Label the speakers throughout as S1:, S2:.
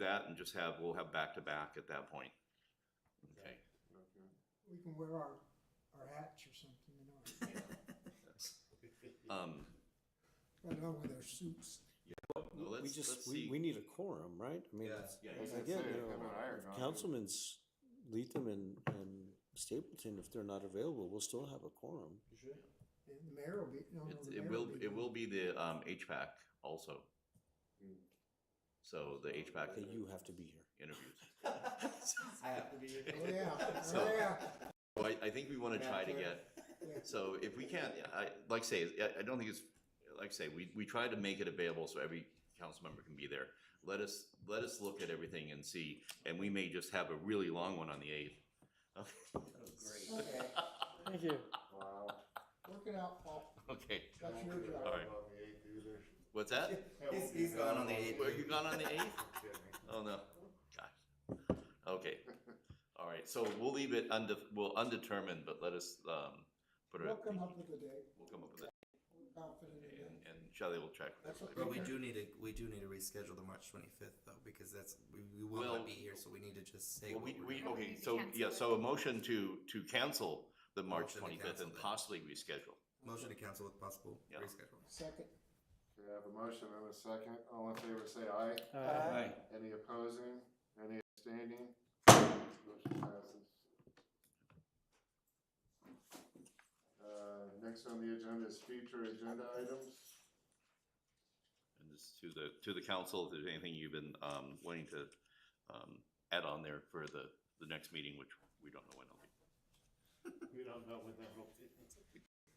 S1: that and just have, we'll have back-to-back at that point. Okay.
S2: We can wear our, our hats or something, you know,
S1: Um,
S2: right along with our suits.
S1: no, let's,
S3: We
S1: let's
S3: just, we,
S1: see.
S3: we need a quorum, right? I mean, it's-
S1: Yeah,
S3: as
S1: yeah.
S3: again,
S4: Say,
S3: you know,
S4: come on, iron on.
S3: councilmen's Leatham and, and Stapleton, if they're not available, we'll still have a quorum.
S2: And the mayor will be, no, no,
S1: It's,
S2: the
S1: it
S2: mayor
S1: will,
S2: be
S1: it
S2: there.
S1: will be the, um, HVAC also. So the
S3: Okay,
S1: HVAC
S3: you have to be here.
S1: interviews.
S4: Hmm.
S5: I have to be here.
S2: Oh, yeah,
S1: So-
S2: oh, yeah,
S1: So I, I think we wanna try to get,
S2: yeah.
S1: so if we can't, I, like I say, I, I don't think it's, like I say, we, we try to make it available so every council member can be there. Let us, let us look at everything and see, and we may just have a really long one on the eighth.
S5: Great.
S2: Okay,
S6: Thank you.
S4: Wow.
S2: work it out, Paul,
S1: Okay,
S2: that's your
S4: That
S2: job.
S1: All right.
S4: won't be eight either.
S1: what's that?
S4: That
S5: He's-
S4: won't be
S5: he's gone
S4: done
S5: on the
S4: while
S5: eighth.
S4: we're
S1: Were you gone on the eighth?
S4: kidding.
S1: Oh, no. Gosh. Okay. All right, so we'll leave it unde, we'll undetermined, but let us, um, put it.
S2: We'll come up with a day,
S1: We'll come up with it,
S2: We're confident in that.
S1: and, and Shelley will check. with everybody.
S5: But we do need to we do need to reschedule the March 25th though because that's we, we will
S1: Well-
S5: not be here so we need to just say
S1: Well,
S5: what
S1: we,
S5: we're
S1: we, okay,
S5: doing.
S7: to
S1: so,
S7: cancel
S1: yeah,
S7: it.
S1: so a motion to, to cancel the March
S5: Motion to
S1: twenty-fifth
S5: cancel
S1: and
S5: it.
S1: possibly reschedule.
S5: motion to cancel with possible
S1: Yeah.
S5: reschedule.
S2: second,
S4: Okay, I have a motion and a second. All in favor, say aye.
S6: Aye.
S4: Any opposing? Any abstaining? Motion passes. Uh, next on the agenda is future agenda items.
S1: And just to the, to the council, if there's anything you've been, um, wanting to, um, add on there for the, the next meeting, which we don't know when it'll be.
S4: We don't know when that will be.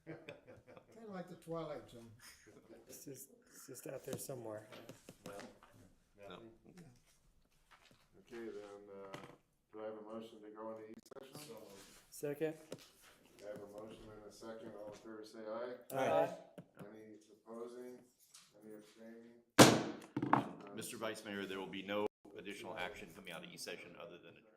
S2: kinda like the Twilight Zone.
S6: It's just, it's just out there somewhere.
S4: Okay, then, uh, do I have a motion to go into E session?
S6: Second?
S4: I have a motion and a second. All in favor, say aye.
S6: Aye.
S4: Any opposing? Any abstaining?
S2: Um,
S1: Mr. Vice Mayor, there will be no additional action coming out of E session other than adjournment.